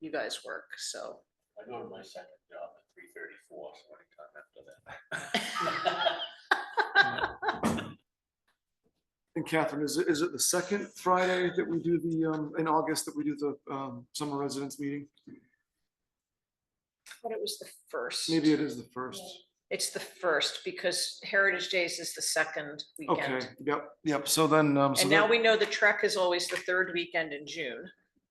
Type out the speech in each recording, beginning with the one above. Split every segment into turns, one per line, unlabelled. you guys work, so.
I go to my second job at three thirty-four, so anytime after that.
And Catherine, is it, is it the second Friday that we do the, um, in August that we do the, um, summer residents meeting?
But it was the first.
Maybe it is the first.
It's the first because Heritage Days is the second
Okay,
weekend.
yep, yep. So then, um, so
And now
that,
we know the Trek is always the third weekend in June.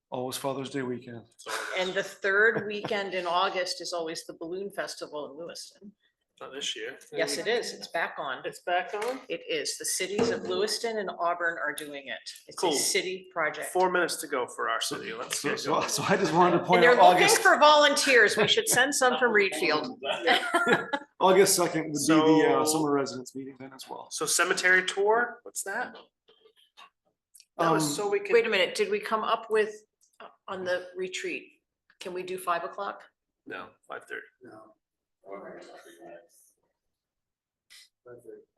always Father's Day weekend.
So
And the third weekend in August is always the Balloon Festival in Lewiston.
Not this year.
Yes, it is. It's back on.
It's back on?
It is. The cities of Lewiston and Auburn are doing it. It's a
Cool.
city project.
Four minutes to go for our city. Let's
So,
get
so
going.
so I just wanted to
And
point
they're
out
looking
August,
for volunteers. We should send some from Reedfield.
August second would be the, uh,
So-
summer residents meeting then as well.
So cemetery tour, what's that? That
Um,
was so we
Wait a
could,
minute, did we come up with, uh, on the retreat, can we do five o'clock?
no, five thirty.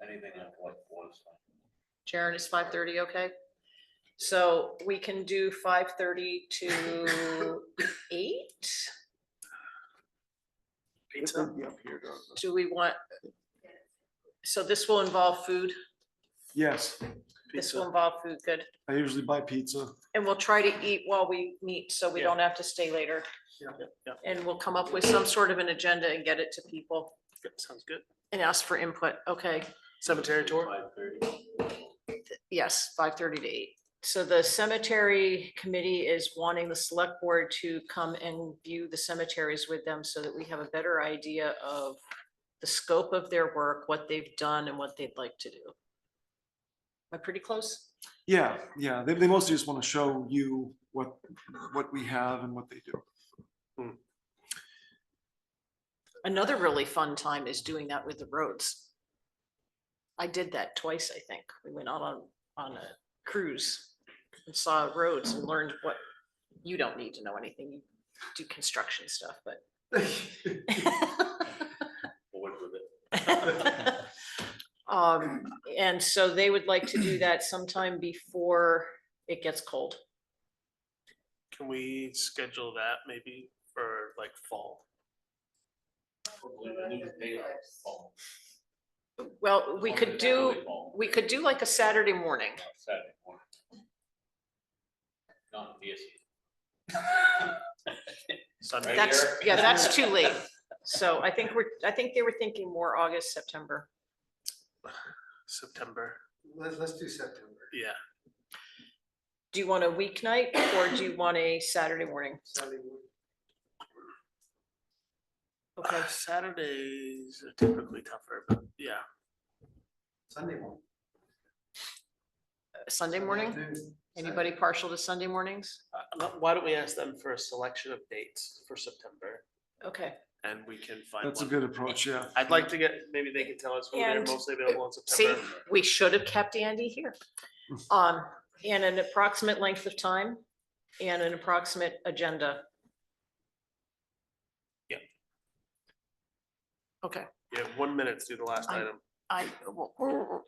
Anything like what was.
Jaren, is five thirty okay? So we can do five thirty to eight?
It
Pizza,
would be up here, though.
Do we want? So this will involve food,
Yes,
this will
pizza.
involve food, good.
I usually buy pizza.
And we'll try to eat while we meet, so we
Yeah.
don't have to stay later.
Yeah, yeah, yeah.
And we'll come up with some sort of an agenda and get it to people
Good, Sounds good.
and ask for input, okay?
Cemetery tour?
Yes, five thirty to eight. So the cemetery committee is wanting the select board to come and view the cemeteries with them so that we have a better idea of the scope of their work, what they've done and what they'd like to do. Am I pretty close?
Yeah, yeah, they, they mostly just want to show you what, what we have and what they do.
Another really fun time is doing that with the roads. I did that twice, I think. We went out on, on a cruise and saw roads and learned what, you don't need to know anything. You do construction stuff, but
Bored with it.
Um, and so they would like to do that sometime before it gets cold.
Can we schedule that maybe for like fall?
Well, we could do, we could do like a Saturday morning.
Saturday morning. Not this.
Sunday?
Right
That's,
here.
yeah, that's too late. So I think we're, I think they were thinking more August, September.
September,
Let's, let's do September.
yeah.
Do you want a weeknight or do you want a Saturday morning?
Sunday morning.
Okay,
Saturdays are typically tougher, but yeah.
Sunday morning.
Sunday morning?
afternoon,
Anybody partial to Sunday mornings?
Uh, let- Why don't we ask them for a selection of dates for September
Okay.
and we can find
That's a
one.
good approach, yeah.
I'd like to get, maybe they can tell us who they're
And-
mostly available in
See,
September.
we should have kept Andy here. Um, and an approximate length of time and an approximate agenda.
Yep.
Okay,
You have one minute to do the last
I'm-
item.
I, well,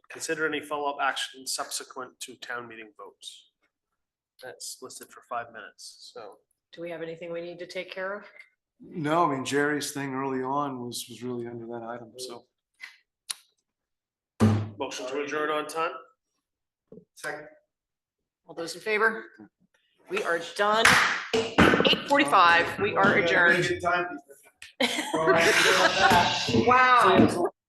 Consider any follow-up action subsequent to town meeting votes. That's listed for five minutes, so.
do we have anything we need to take care of?
No, I mean, Jerry's thing early on was, was really under that item, so.
Motion to adjourn on time?
Second.
All those in favor? We are done. Eight forty-five, we are adjourned.
Good time.
Wow.
So-